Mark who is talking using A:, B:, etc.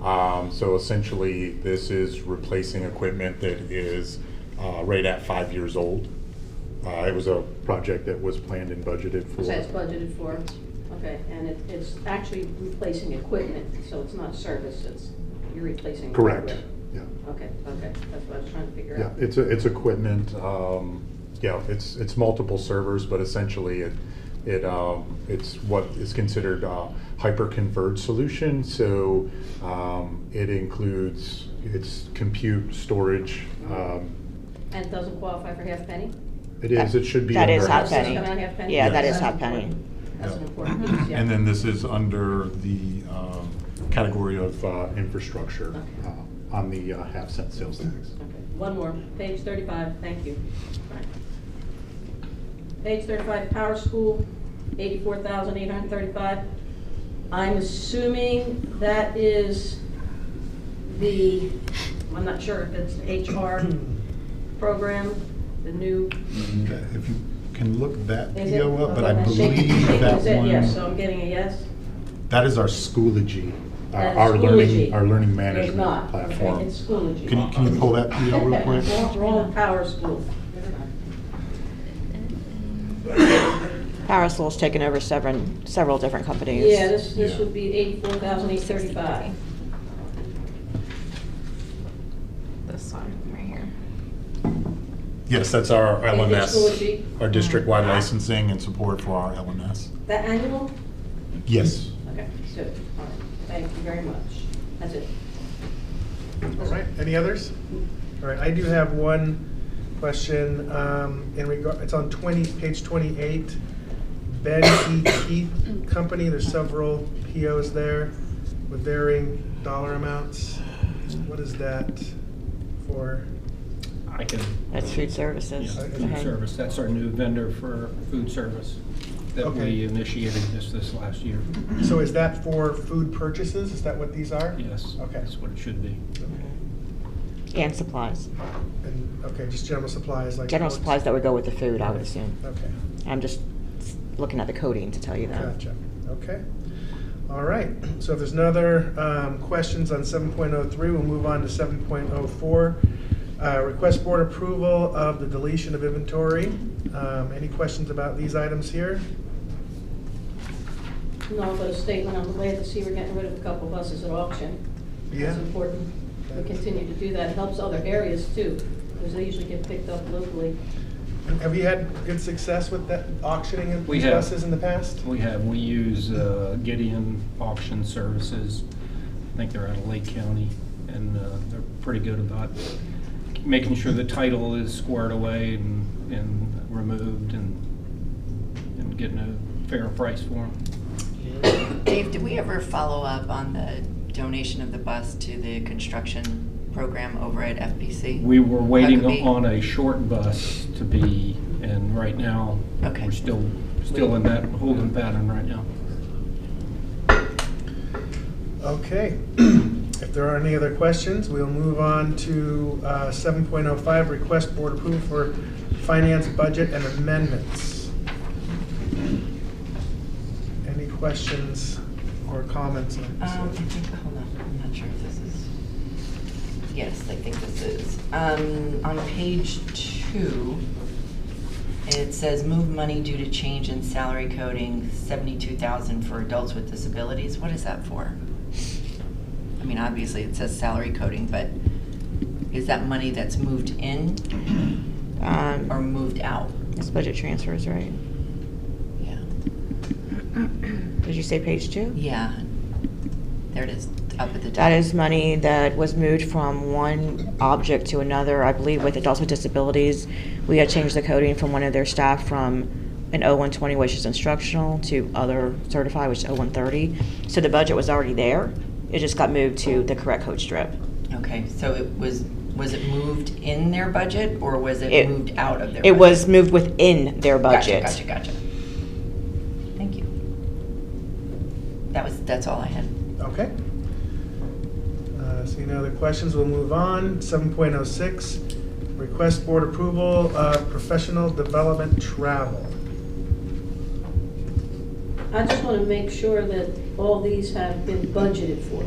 A: Um, So essentially, this is replacing equipment that is uh, right at five years old. Uh, It was a project that was planned and budgeted for.
B: So it's budgeted for, okay, and it, it's actually replacing equipment, so it's not services, you're replacing.
A: Correct,
B: equipment.
A: yeah.
B: Okay, okay, that's what I was trying to figure
A: Yeah,
B: out.
A: it's, it's equipment, um, yeah, it's, it's multiple servers, but essentially it, it, um, it's what is considered a hyper-converged solution. So um, it includes, it's compute, storage. um,
B: And it doesn't qualify for half penny?
A: It is, it should be
C: That is
A: under
C: hot
A: house.
C: penny.
B: Coming out half penny?
C: Yeah, that
A: Yes.
C: is hot penny.
B: That's an important piece, yeah.
A: And then this is under the um, category of uh, infrastructure
B: Okay.
A: uh, on the uh, half cent sales tax.
B: Okay, One more, page thirty-five, thank you. Fine. Page thirty-five, Power School, eighty-four thousand eight hundred thirty-five. I'm assuming that is the, I'm not sure if it's the HR program, the new.
D: If you can look that
B: is it?
D: PO up, but I
B: Okay, shake-
D: believe
B: shake
D: that
B: is it, Yes, so
D: one,
B: I'm getting a yes?
D: that is our Schoology. uh,
A: Our-
B: That's
A: Our learning,
B: Schoology.
A: our learning
B: There's
A: management
B: not, okay,
A: platform.
B: it's Schoology.
D: Can you, can you pull that PO real quick?
B: Wrong- Wrong Power School.
C: Parasol's taken over several, several different companies.
B: Yeah, this, this
D: Yeah.
B: would be eighty-four thousand eight thirty-five.
E: This one right here.
D: Yes, that's our
B: Schoology. Uh-huh.
D: LMS, our district-wide licensing and support for our LMS.
B: That annual?
D: Yes.
B: Okay, so, all right, thank you very much. That's it.
F: All right, any others? All right, I do have one question um, in regard, it's on 20, page 28. Ben E. Keith Company, there's several POs there with varying dollar amounts. What is that for?
G: I can,
C: That's food services.
F: Yeah,
G: food
C: Okay.
G: service, that's our new vendor for food service that
F: Okay. Mm-hmm.
G: we initiated this, this last year.
F: So is that for food purchases? Is that what these are?
G: Yes,
F: Okay.
G: that's what it should be.
C: And supplies,
F: And, okay, just general supplies like.
C: general supplies that would go with the food, I would
F: Right.
C: assume.
F: Okay.
C: I'm just looking at the coding to tell you that.
F: Gotcha, okay. All right, so if there's no other um, questions on 7.03, we'll move on to 7.04. Uh, Request board approval of the deletion of inventory. Um, Any questions about these items here?
B: No, but a statement, I'm glad to see we're getting rid of a couple buses at auction.
F: Yeah.
B: That's important. We continue to do that, It helps other areas too, because they usually get picked up locally.
F: Have you had good success with that auctioning of
G: We
F: these
G: have.
F: buses in the past?
G: We have, we use uh, Gideon Auction Services. I think they're out of Lake County, and uh, they're pretty good about making sure the title is squared away and, and removed and, and getting a fair price for them.
H: Dave, did we ever follow up on the donation of the bus to the construction program over at FPC?
G: We were waiting
H: That could be- Um,
G: on a short bus to be, and right now,
H: Okay.
G: we're still, still in that holding pattern right now.
F: Okay, if there are any other questions, we'll move on to uh, 7.05, request board approval for finance budget and amendments. Any questions or comments? on this?
H: Um, I think, hold on, I'm not sure if this is, yes, I think this is. Um, on page two, it says move money due to change in salary coding, seventy-two thousand for adults with disabilities. What is that for? I mean, obviously, it says salary coding, but is that money that's moved in or
C: Um,
H: moved out?
C: It's budget transfers, right?
H: Yeah.
C: Did you say page two?
H: Yeah. There it is, up at the top.
C: That is money that was moved from one object to another, I believe with adults with disabilities. We had changed the coding from one of their staff from an O120, which is instructional, to other certified, which is O130. So the budget was already there. It just got moved to the correct code strip.
H: Okay, so it was, was it moved in their budget, or was it
C: It-
H: moved out of their?
C: It
H: budget?
C: was moved within their
H: Gotcha,
C: budget.
H: Gotcha, gotcha. Thank you. That was, that's all I had.
F: Okay. Uh, Seeing no other questions, we'll move on. 7.06, request board approval of professional development travel.
B: I just want to make sure that all these have been budgeted for.